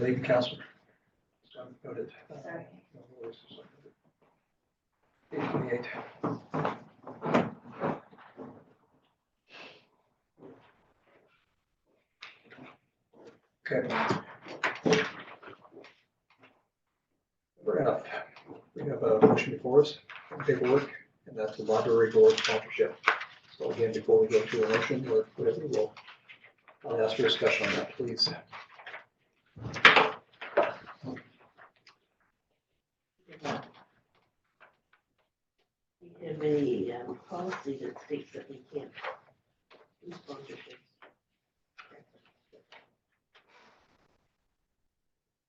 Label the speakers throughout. Speaker 1: Thank you, Counselor. So noted.
Speaker 2: Sorry.
Speaker 1: No worries. So noted. Eight twenty-eight. Okay. Fair enough. We have a motion before us, paperwork, and that's the library board sponsorship. So again, before we go to a motion, or whatever, we'll, I'll ask for discussion on that, please.
Speaker 3: We have a um, policy that states that we can't do sponsorships.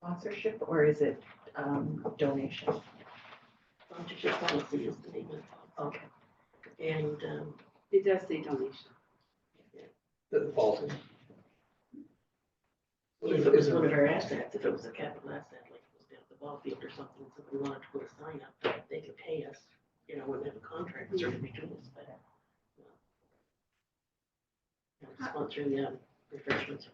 Speaker 2: Sponsorship or is it um, donation?
Speaker 3: Sponsorship policy is the name of it.
Speaker 2: Okay.
Speaker 3: And um,
Speaker 4: It does say donation.
Speaker 1: the policy.
Speaker 3: if it was one of our assets, if it was a capital asset, like it was down at the ball field or something, somebody wanted to put a sign up, they could pay us, you know, wouldn't have a contract, it's already between us, but. uh, you know. You know, Sponsoring the um, refreshments.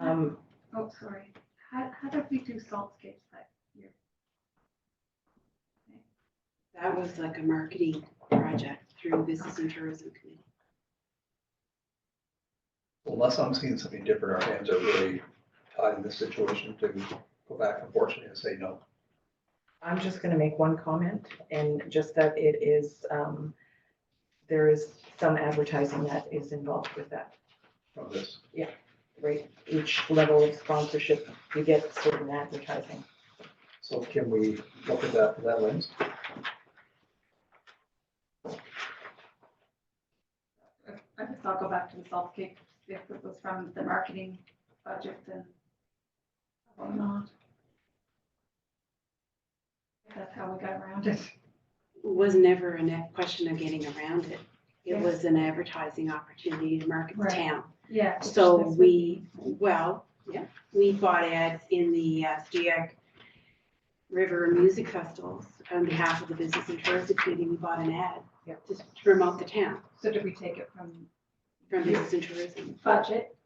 Speaker 2: Um,
Speaker 5: Oh, sorry. How, how did we do Saltscape that year?
Speaker 4: That was like a marketing project through Business and Tourism Committee.
Speaker 1: Unless I'm seeing something different, our hands are really tied in this situation to go back unfortunately and say no.
Speaker 2: I'm just gonna make one comment and just that it is, um, there is some advertising that is involved with that,
Speaker 1: from this.
Speaker 2: right? Each level of sponsorship, you get certain advertising.
Speaker 1: So can we look at that through that lens?
Speaker 5: I guess I'll go back to the Saltscape, if it was from the marketing budget and whatnot. If That's how we got around it.
Speaker 4: It was never a ne- question of getting around it. It
Speaker 5: Yeah.
Speaker 4: was an advertising opportunity to market the
Speaker 5: Right.
Speaker 4: town.
Speaker 5: Yeah.
Speaker 4: So we, well, yeah, we bought ads in the uh, Steag River Music Festivals on behalf of the Business and Tourism Committee. We bought an ad
Speaker 2: Yeah.
Speaker 4: to s- to promote the town
Speaker 5: So did we take it from
Speaker 4: from Business and Tourism.
Speaker 5: budget?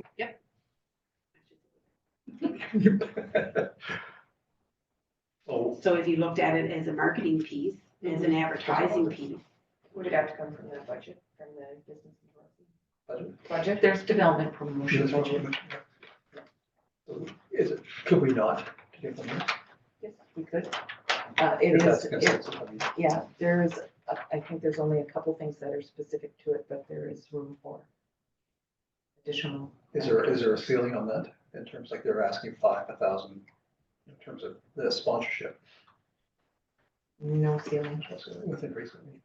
Speaker 1: Oh,
Speaker 4: So if you looked at it as a marketing piece, as an advertising piece,
Speaker 6: Would it have to come from the budget, from the business and tourism?
Speaker 1: Pardon?
Speaker 6: Budget, there's development promotion budget.
Speaker 1: Is it, could we not? take from here?
Speaker 6: Yes, we could.
Speaker 2: Uh, it
Speaker 1: If that's
Speaker 2: is,
Speaker 1: the
Speaker 2: it-
Speaker 1: consensus, I mean,
Speaker 2: yeah, there is, uh, I- I think there's only a couple things that are specific to it, but there is room for additional.
Speaker 1: Is there, is there a ceiling on that in terms like they're asking five, a thousand in terms of the sponsorship
Speaker 2: No ceiling.
Speaker 1: that's within reason?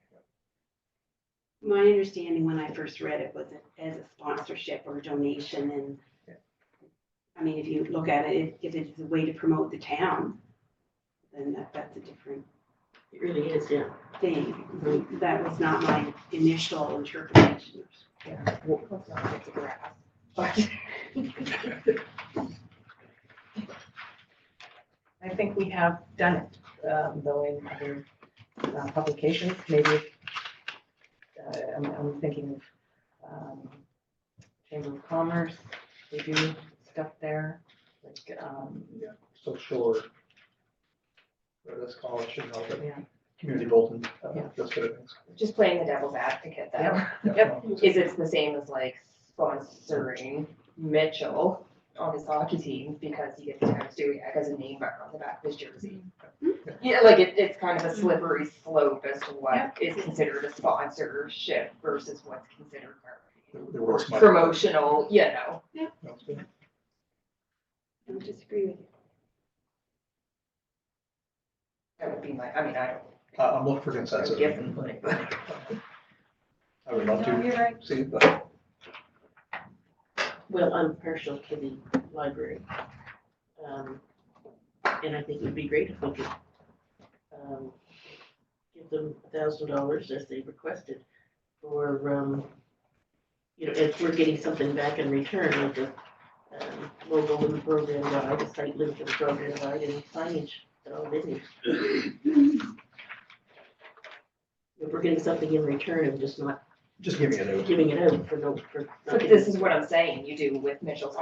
Speaker 4: My understanding when I first read it was it as a sponsorship or donation and
Speaker 1: Yeah.
Speaker 4: I mean, if you look at it, if if it's a way to promote the town, then that, that's a different
Speaker 3: It really is, yeah.
Speaker 4: thing. That was not my initial interpretation.
Speaker 2: Yeah, well,
Speaker 6: Let's not get to grass.
Speaker 2: I think we have done it, um, though in other uh, publications, maybe. uh, I'm, I'm thinking of um, Chamber of Commerce, they do stuff there, like, um,
Speaker 1: So sure. Whatever that's called, should help it.
Speaker 2: yeah.
Speaker 1: community bulletin, uh,
Speaker 2: Yeah.
Speaker 1: those sort of things.
Speaker 6: Just playing the devil's advocate though.
Speaker 2: Yep.
Speaker 6: Is it the same as like sponsoring Mitchell on his hockey team because he gets times doing it as a name mark on the back of his jersey? Yeah, like it, it's kind of a slippery slope as to what is considered a sponsorship versus what's considered marketing.
Speaker 1: The- the works might-
Speaker 6: Promotional, you know.
Speaker 1: Sounds good.
Speaker 4: I would disagree with you.
Speaker 6: That would be my, I mean, I
Speaker 1: I- Uh, I'm looking for consensus.
Speaker 6: don't give them like, but
Speaker 1: I would love
Speaker 5: No,
Speaker 1: to
Speaker 5: you're right.
Speaker 1: see, it, but
Speaker 3: Well, I'm partial to the library. Um, And I think it'd be great if we could um, give them a thousand dollars as they requested for, um, you know, if we're getting something back in return, like a um, logo in the program guide, a site link in the program guide, and signage that all they need. If we're getting something in return and just not
Speaker 1: just give me a note.
Speaker 3: giving it out for no, for.
Speaker 6: but this is what I'm saying, you do with Mitchell's